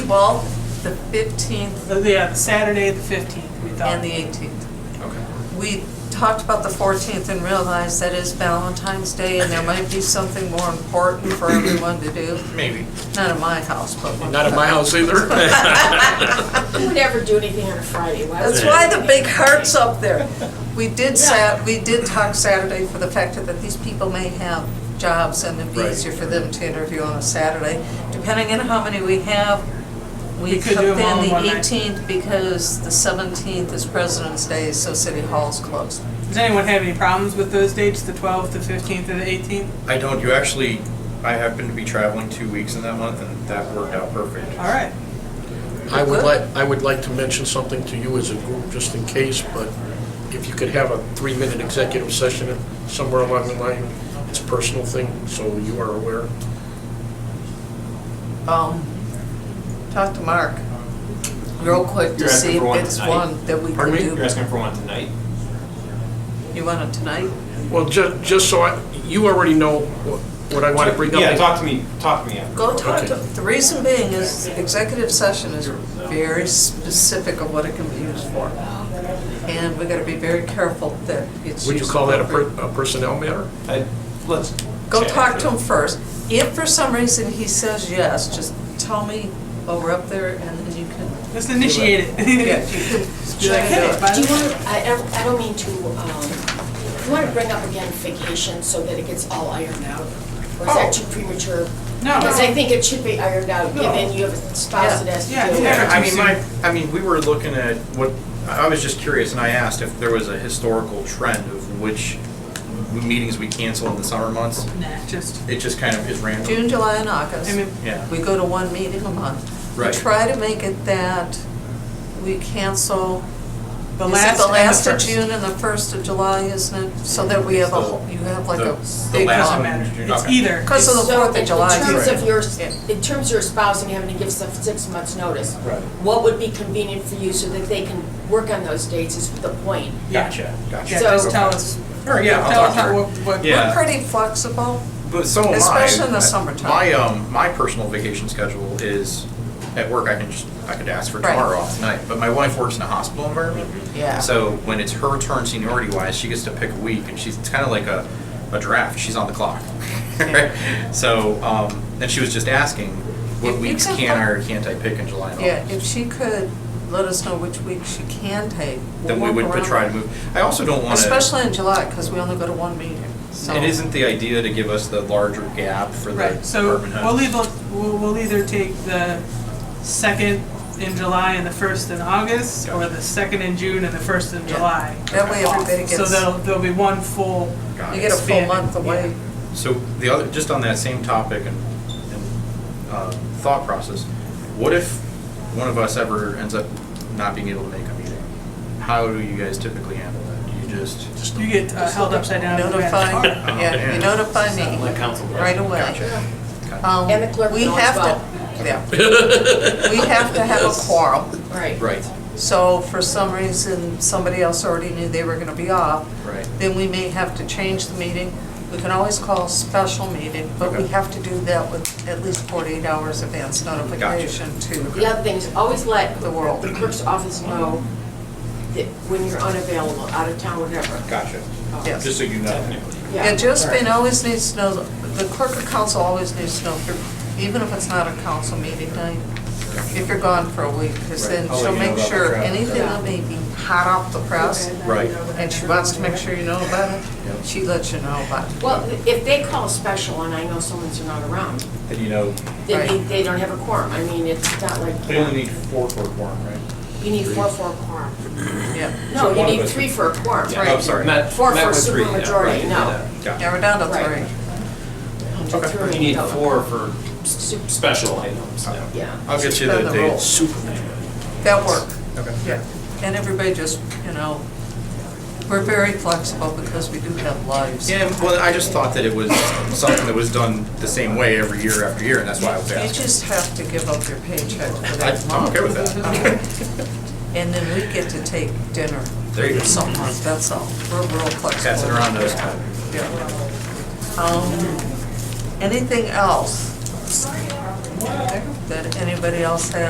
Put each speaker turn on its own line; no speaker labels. Well, the 15th
The- Yeah, the Saturday, the 15th, we thought.
and the 18th.
Okay.
We talked about the 14th and realized that is Valentine's Day and there might be something more important for everyone to do.
Maybe.
Not at my house, but.
Not at my house either.
We would never do anything on a Friday. Why would
That's
we?
why the big heart's up there. We did sat, we did talk Saturday for the factor that these people may have jobs and it'd be
Right.
easier for them to interview on a Saturday. Depending on how many we have, we
We could
could
do
in
them all in
the
one night.
eighteenth because the seventeenth is President's Day, so City Hall's closed.
Does anyone have any problems with those dates, the 12th, the 15th, or the 18th?
I don't, you actually, I happen to be traveling two weeks in that month and that worked out perfect.
All right.
I would like, I would like to mention something to you as a group, just in case, but if you could have a three-minute executive session somewhere along the line, it's a personal thing, so you are aware.
Um, talk to Mark real quick to
You're asking
see if
for one
it's
tonight?
one that we
Pardon me?
can
You're
do.
asking for one tonight?
You want it tonight?
Well, ju- just so I, you already know what what I want to bring up.
Yeah, talk to me, talk to me after.
Go talk to,
Okay.
the reason being is executive session is very specific of what it can be used for. And we gotta be very careful that it's
Would you
used
call that a per-
appropriately.
a personnel matter?
I- Uh, Let's.
Go
chat
talk
after.
to him first. If for some reason he says yes, just tell me while we're up there and then you can.
Let's initiate it. Be like, hey, by
Do
the
you
way,
want, I don't, I don't mean to, um, you want to bring up again vacation so that it gets all ironed out? Or is that
Oh.
too premature?
No.
Because I think it should be ironed out,
No.
given you have a spouse that has to
Yeah, yeah,
do
yeah.
it.
I mean, my, I mean, we were looking at what, I was just curious and I asked if there was a historical trend of which meetings we cancel in the summer months.
Nah, just,
It just kind of is random.
June, July and August.
I mean,
Yeah.
We go to one meeting a month. We
Right.
try to make it that we cancel.
the
is it
last and the
of
first.
June and the first of July, isn't it? So that we have a, whole- you have like a
The- the
big
last
Doesn't
one.
one.
matter.
Okay.
It's either.
Because of the
So
Fourth of July.
In terms of
Right.
your, in terms of your spouse and having to give some six months' notice,
Right.
what would be convenient for you so that they can work on those dates is the point.
Yeah.
Gotcha,
Yeah,
gotcha.
So-
just tell us.
Or, yeah, I'll
Tell us
talk to
how-
her.
what- what-
Yeah.
We're pretty flexible.
But so am
Especially
I.
in the summertime.
My um, my personal vacation schedule is at work. I can just I could ask for
Right.
tomorrow off tonight. But my wife works in a hospital environment.
Yeah.
So when it's her turn seniority wise, she gets to pick a week, and she's it's kind of like a, a draft. She's on the clock. so um, and she was just asking, what
If you
weeks
could-
can I or can't I pick in July and
Yeah,
August?
if she could let us know which week she can take. we'll
then we
work
would
around
try
it.
to move. I also don't want to.
Especially in July, because we only go to one meeting, so.
It isn't the idea to give us the larger gap for the
Right, so
department heads.
we'll leave, we'll, we'll either take the second in July and the first in August, or the second in June and the first in
Yeah.
July.
That way everybody
So
gets,
there'll,
you
there'll be one full,
Got it.
get a full
expanded,
month away.
So the other, just on that same topic and, and uh, thought process, what if one of us ever ends up not being able to make a meeting? How do you guys typically handle that? Do you just?
you get uh, held upside down.
Notify,
Oh,
yeah, you
man.
notify me
council.
right away.
Gotcha. Okay.
Um,
And the clerk
we
will as
have to-
well.
Yeah. We have to have a quorum,
Right.
Right,
so if for some reason, somebody else already knew they were gonna be off,
right.
then we may have to change the meeting. We can always call a special meeting, but we
Okay.
have to do that with at least 48 hours advance notification
The
to,
other thing is always let
The world.
the clerk's office know that when you're unavailable, out of town, whatever.
Gotcha.
yes.
Just so you know.
Technically.
Yeah, Josephine always needs to know, the clerk of council always needs to know, if you're- even if it's not a council meeting night, if you're gone for a week, because then
Right. I'll
she'll
let you know
make
about the
sure
traffic.
anything that may be hot off the press,
Right.
and she wants to make sure you know about it,
Yep.
she lets you know about it.
Well, if they call a special and I know someone's not around,
And you know,
then they,
Right.
they don't have a quorum. I mean, it's not like,
we only need four for a quorum, right?
you need four for a quorum.
Yeah,
No,
one
you
of
need
us-
three for a quorum.
Yeah, I'm sorry.
Met-
Four
met
for
with three, yeah,
supermajority,
right,
no.
yeah.
now
Gotcha.
we're down to
Right.
three.
Okay.
You need four for special items, yeah.
Yeah.
I'll get you the
Suspend the rules.
dates.
Superman.
That work.
Okay.
Yeah. And everybody just, you know, we're very flexible because we do have lives.
Yeah, well, I just thought that it was something that was done the same way every year after year, and that's why I was
You
asking.
just have to give up your paycheck for
I-
that
I'm
month.
okay with that.
And then we get to take dinner
There you
or
go.
something like that, that's all. We're real flexible.
Pass it around those.
Um, Anything else? that anybody else has.